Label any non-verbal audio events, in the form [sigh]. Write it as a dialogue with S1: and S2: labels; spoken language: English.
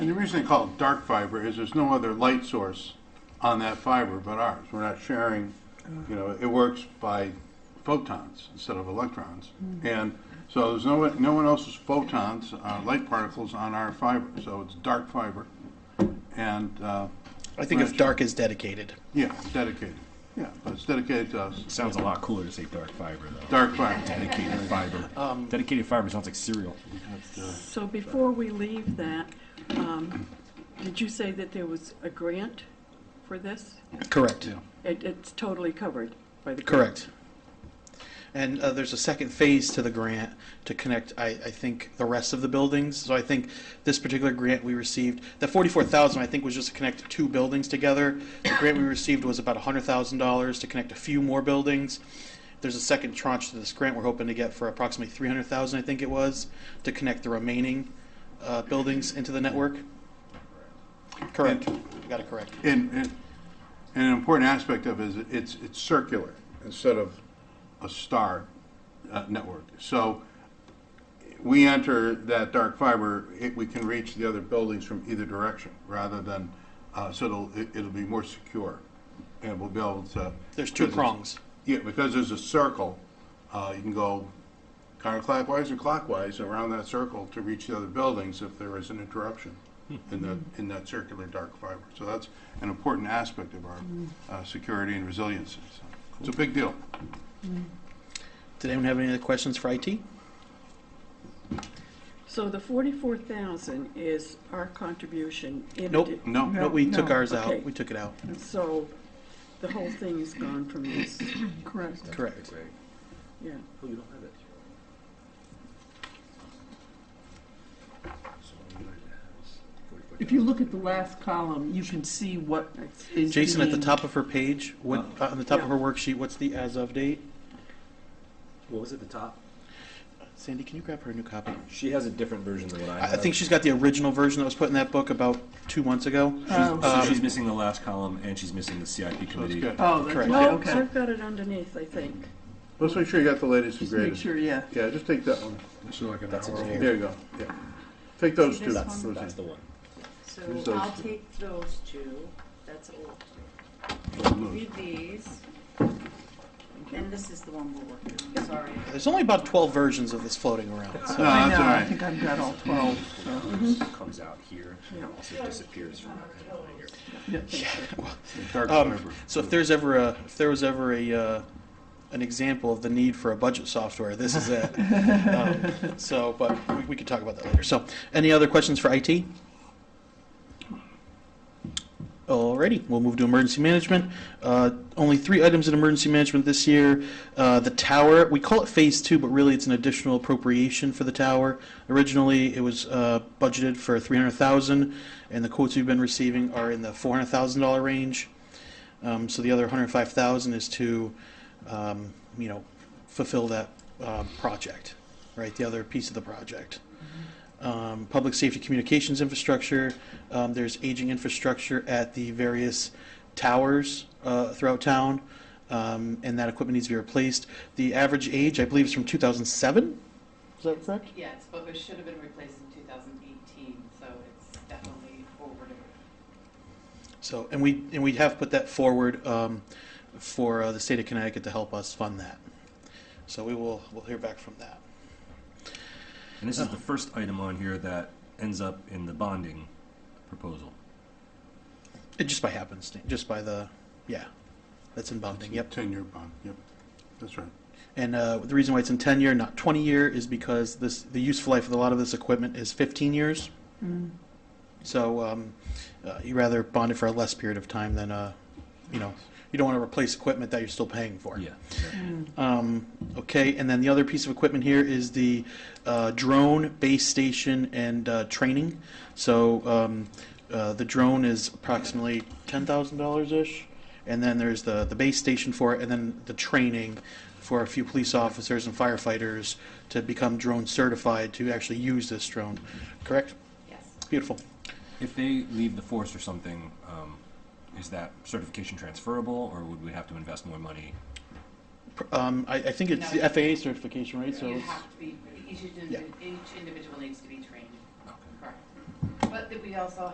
S1: reason they call it dark fiber is there's no other light source on that fiber but ours. We're not sharing, you know, it works by photons instead of electrons. And so there's no, one- no one else's photons, uh, light particles on our fiber, so it's dark fiber. And, uh,
S2: I think if dark is dedicated.
S1: yeah, dedicated, yeah, but it's dedicated to us,
S3: Sounds a lot cooler to say dark fiber though.
S1: dark fiber.
S4: [laughs]
S3: Dedicated fiber.
S4: Um,
S3: Dedicated fiber sounds like cereal.
S5: So before we leave that, um, did you say that there was a grant for this?
S2: Correct.
S1: Yeah.
S5: It, it's totally covered by the grant?
S2: Correct. And uh, there's a second phase to the grant to connect, I, I think, the rest of the buildings. So I think this particular grant we received, the forty-four thousand, I think, was just to connect two buildings together. The grant we received was about hundred thousand dollars to connect a few more buildings. There's a second tranche to this grant we're hoping to get for approximately three hundred thousand, I think it was, to connect the remaining uh, buildings into the network. Correct. You Got it correct.
S1: And, and, and an important aspect of it is it's, it's circular instead of a star uh, network. So we enter that dark fiber, it, we can reach the other buildings from either direction rather than, uh, so it'll, it- it'll be more secure. And we'll be able to.
S2: There's two
S1: because it's-
S2: prongs.
S1: Yeah, because there's a circle, uh, you can go counterclockwise or clockwise around that circle to reach the other buildings if there is an interruption in that, in that circular dark fiber. So that's an important aspect of our, uh, security and resiliency. So It's a big deal.
S2: Did anyone have any other questions for IT?
S5: So the forty-four thousand is our contribution in.
S2: Nope.
S5: addi-
S1: No,
S2: No, we took
S6: no.
S2: ours out.
S5: Okay.
S2: We took it out.
S5: So the whole thing is gone from this,
S6: Correct.
S2: Correct.
S5: yeah.
S6: If you look at the last column, you can see what is
S2: Jason, at the
S6: being-
S2: top of her page, what, uh, on the top of her worksheet, what's the as of date?
S4: What was at the top?
S2: Sandy, can you grab her a new copy?
S4: She has a different version than what I
S2: I, I
S4: have.
S2: think she's got the original version that was put in that book about two months ago.
S6: Oh,
S4: So
S2: um,
S4: she's missing the last column and she's missing the CIP
S1: so it's
S4: committee.
S1: good.
S6: oh, that's
S2: Correct.
S6: right,
S5: No,
S6: okay.
S5: I've got it underneath, I think.
S1: Let's make sure you got the latest and
S6: Just make
S1: greatest.
S6: sure, yeah.
S1: Yeah, just take that one.
S3: That's it.
S1: There you go, yeah. Take those
S7: See
S1: two.
S7: this one?
S1: Rosie.
S4: That's the one.
S7: So
S1: Who's those
S7: I'll
S1: two?
S7: take those two, that's old,
S1: Those moves.
S7: read these, and this is the one we're working on, sorry.
S2: There's only about twelve versions of this floating around.
S1: No,
S2: So.
S1: that's
S6: I know,
S1: all
S6: I
S1: right.
S6: think I've got all 12, so,
S4: Comes out here and also disappears from that one here.
S1: Dark
S2: Um,
S1: fiber.
S2: so if there's ever a, if there was ever a, uh, an example of the need for a budget software, this is it. um, so, but we, we could talk about that later. So, any other questions for IT? Alrighty, we'll move to emergency management. Uh, only three items in emergency management this year. Uh, the tower, we call it phase two, but really it's an additional appropriation for the tower. Originally, it was uh, budgeted for three hundred thousand, and the quotes we've been receiving are in the four hundred thousand dollar range. Um, so the other hundred five thousand is to, um, you know, fulfill that um, project, right? The other piece of the project um, public safety communications infrastructure. Um, there's aging infrastructure at the various towers uh, throughout town, um, and that equipment needs to be replaced. The average age, I believe, is from 2007. Is that correct?
S8: Yeah, it's, but it should have been replaced in 2018, so it's definitely over.
S2: So, and we and we have put that forward um, for uh, the state of Connecticut to help us fund that. So we will we'll hear back from that.
S4: And this is the first item on here that ends up in the bonding proposal.
S2: It just by happenstance, just by the yeah, that's in bonding. Yep.
S1: Ten-year bond, yep, that's right.
S2: And uh, the reason why it's in 10 year, not 20 year, is because this the useful life of a lot of this equipment is 15 years. So um, uh, you rather bond it for a less period of time than, uh, you know, you don't want to replace equipment that you're still paying for.
S4: [laughs] Yeah.
S2: Um, okay, and then the other piece of equipment here is the uh, drone base station and uh, training. So um, uh, the drone is approximately ten thousand dollars ish, and then there's the the base station for it, and then the training for a few police officers and firefighters to become drone certified to actually use this drone. Correct?
S8: Yes.
S2: Beautiful.
S4: If they leave the force or something, um, is that certification transferable or would we have to invest more money?
S2: Um, I, I think it's the FAA certification, right? So
S8: You
S2: it's,
S8: have to be, each,
S2: Yeah.
S8: individ- each individual needs to be trained,
S4: Okay.
S8: correct? But that we also